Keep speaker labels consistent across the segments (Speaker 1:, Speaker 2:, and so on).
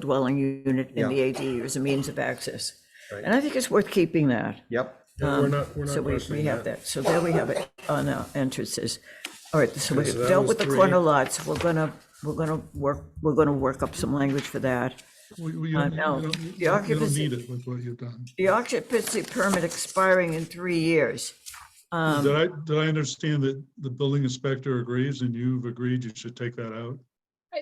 Speaker 1: dwelling unit in
Speaker 2: Yeah.
Speaker 1: the ADU as a means of access. And I think it's worth keeping that.
Speaker 2: Yep.
Speaker 3: Yeah, We're not, we're
Speaker 1: Um, So
Speaker 3: not
Speaker 1: we, we
Speaker 3: questioning
Speaker 1: have
Speaker 3: that.
Speaker 1: that. So there we have it on our entrances. All right, so we've
Speaker 3: so that
Speaker 1: dealt
Speaker 3: was
Speaker 1: with the
Speaker 3: three.
Speaker 1: corner lots. We're gonna, we're gonna work, we're gonna work up some language for that.
Speaker 3: We- we- You
Speaker 1: Uh,
Speaker 3: don't- you
Speaker 1: no,
Speaker 3: don't-
Speaker 1: the
Speaker 3: you don't- you don't
Speaker 1: occupancy-
Speaker 3: need it with what you've done.
Speaker 1: The occupancy permit expiring in three years.
Speaker 3: Did I, did I understand that the building inspector agrees and you've agreed you should take that out?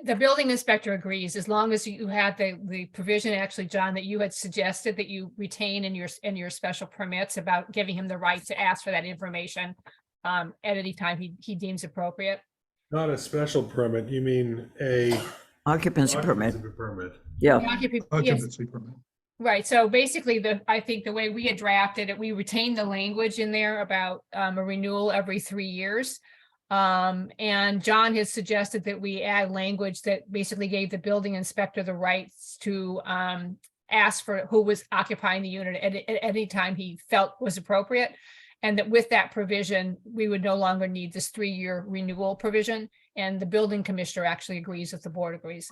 Speaker 4: The building inspector agrees, as long as you had the, the provision, actually, John, that you had suggested that you retain in your, s- in your special permits about giving him the right to ask for that information um, at any time he, he deems appropriate.
Speaker 5: Not a special permit, you mean a.
Speaker 1: Occupancy permit,
Speaker 5: occupancy Permit.
Speaker 1: yeah.
Speaker 4: The occupa- yes,
Speaker 3: Occupancy permit.
Speaker 4: Right, so basically the, I think the way we had drafted it, we retained the language in there about um, a renewal every three years. Um, and John has suggested that we add language that basically gave the building inspector the rights to um, ask for who was occupying the unit at, at any time he felt was appropriate. And that with that provision, we would no longer need this three-year renewal provision. And the building commissioner actually agrees if the board agrees.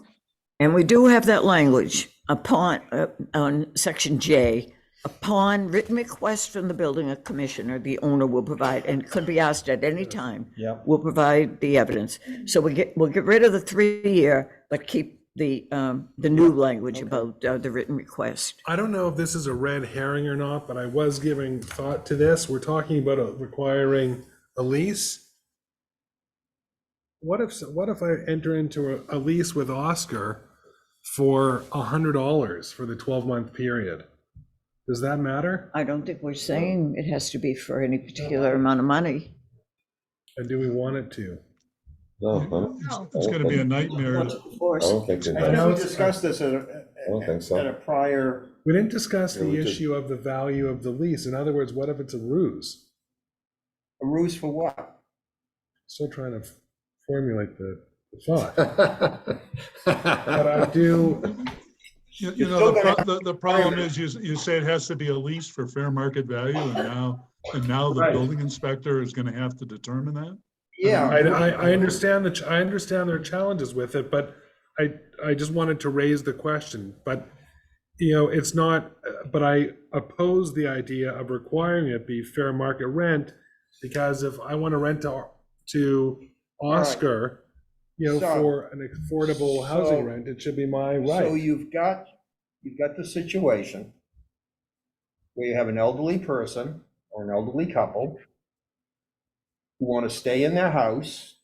Speaker 1: And we do have that language upon, uh, on section J, upon written request from the building commissioner, the owner will provide, and could be asked at any time.
Speaker 2: Yep.
Speaker 1: Will provide the evidence. So we get, we'll get rid of the three-year, but keep the, um, the new language about uh, the written request.
Speaker 5: I don't know if this is a red herring or not, but I was giving thought to this. We're talking about uh, requiring a lease. What if, what if I enter into a, a lease with Oscar for a hundred dollars for the twelve month period? Does that matter?
Speaker 1: I don't think we're saying it has to be for any particular amount of money.
Speaker 5: And do we want it to?
Speaker 6: No, I don't-
Speaker 3: It's- It's gonna be a nightmare. to-
Speaker 1: Of
Speaker 6: Oh, I
Speaker 1: course,
Speaker 6: don't think they
Speaker 2: I
Speaker 6: know.
Speaker 2: know we discussed this at a,
Speaker 6: don't think so.
Speaker 2: at a prior,
Speaker 5: We didn't discuss
Speaker 6: Yeah, we
Speaker 5: the
Speaker 6: did.
Speaker 5: issue of the value of the lease. In other words, what if it's a ruse?
Speaker 2: a ruse for what?
Speaker 5: Still trying to f- formulate the the thought, but I do,
Speaker 3: You you know, the pro- the, the problem is you, you say it has to be a lease for fair market value and now, and now the
Speaker 2: Right.
Speaker 3: building inspector is gonna have to determine that?
Speaker 2: Yeah.
Speaker 5: I, I, I understand the, ch- I understand there are challenges with it, but I, I just wanted to raise the question, but, you know, it's not, uh, but I oppose the idea of requiring it be fair market rent, because if I want to rent to, to Oscar, you know,
Speaker 2: So-
Speaker 5: for an affordable
Speaker 2: so-
Speaker 5: housing rent, it should be my
Speaker 2: So
Speaker 5: right.
Speaker 2: you've got, you've got the situation where you have an elderly person or an elderly couple who want to stay in their house,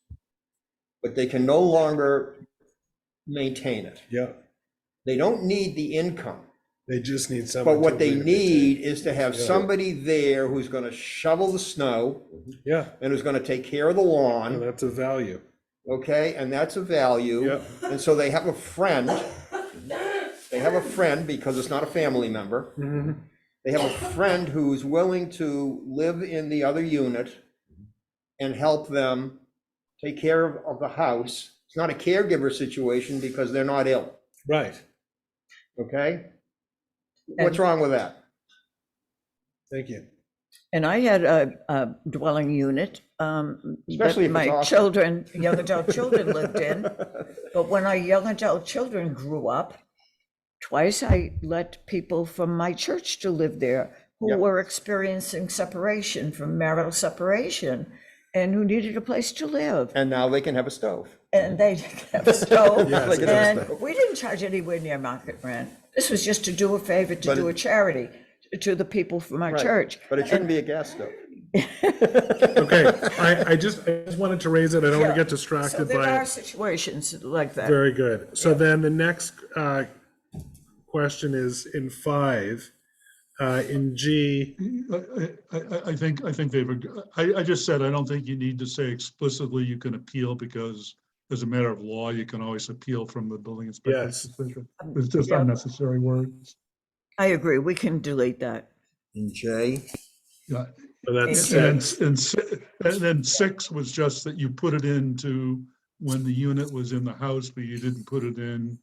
Speaker 2: but they can no longer maintain it.
Speaker 5: Yeah,
Speaker 2: They don't need the income.
Speaker 5: they just need someone.
Speaker 2: But what
Speaker 5: to
Speaker 2: they
Speaker 5: lead it.
Speaker 2: need is to have
Speaker 5: Yeah.
Speaker 2: somebody there who's gonna shovel the snow
Speaker 5: Yeah,
Speaker 2: and who's gonna take care of the
Speaker 5: and
Speaker 2: lawn,
Speaker 5: that's a value.
Speaker 2: okay? And that's a value.
Speaker 5: Yeah.
Speaker 2: And so they have a friend. They have a friend because it's not a family member.
Speaker 5: Mm-hmm.
Speaker 2: They have a friend who's willing to live in the other unit and help them take care of, of the house. It's not a caregiver situation because they're not ill,
Speaker 5: Right.
Speaker 2: okay? What's wrong with that?
Speaker 5: Thank you.
Speaker 1: and I had a, a dwelling unit, um,
Speaker 2: Especially
Speaker 1: that
Speaker 2: if
Speaker 1: my
Speaker 2: it's awesome.
Speaker 1: children, young adult children lived in. But when our young adult children grew up, twice I let people from my church to live there who
Speaker 2: Yep.
Speaker 1: were experiencing separation from marital separation and who needed a place to live.
Speaker 2: And now they can have a stove.
Speaker 1: And they kept a stove.
Speaker 5: Yes, they could
Speaker 2: have a
Speaker 1: and we didn't charge anywhere near market rent. This was just to do a favor, to
Speaker 2: But
Speaker 1: do
Speaker 2: it-
Speaker 1: a charity to the people from our
Speaker 2: Right,
Speaker 1: church.
Speaker 2: But it shouldn't be a gas stove.
Speaker 5: Okay, I, I just, I just wanted to raise it, I don't want to get
Speaker 1: So
Speaker 5: distracted
Speaker 1: there
Speaker 5: by
Speaker 1: are
Speaker 5: it.
Speaker 1: situations like that.
Speaker 5: Very good. So then the next uh, question is in five, uh, in G,
Speaker 3: I, I, I- I think, I think they've, ag- I, I just said, I don't think you need to say explicitly you can appeal because as a matter of law, you can always appeal from the building
Speaker 5: Yes.
Speaker 3: inspector's decision. It's just
Speaker 1: Yeah.
Speaker 3: unnecessary words.
Speaker 1: I agree, we can delete that.
Speaker 2: And Jay?
Speaker 3: Yeah.
Speaker 5: but that's
Speaker 3: And, then s-
Speaker 5: six.
Speaker 3: and, si- and then six was just that you put it into when the unit was in the house, but you didn't put it in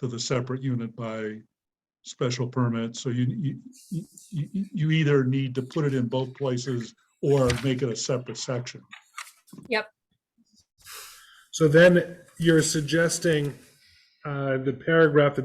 Speaker 3: to the separate unit by special permit. So you, you- you, you, you either need to put it in both places or make it a separate section.
Speaker 5: So then you're suggesting uh, the paragraph that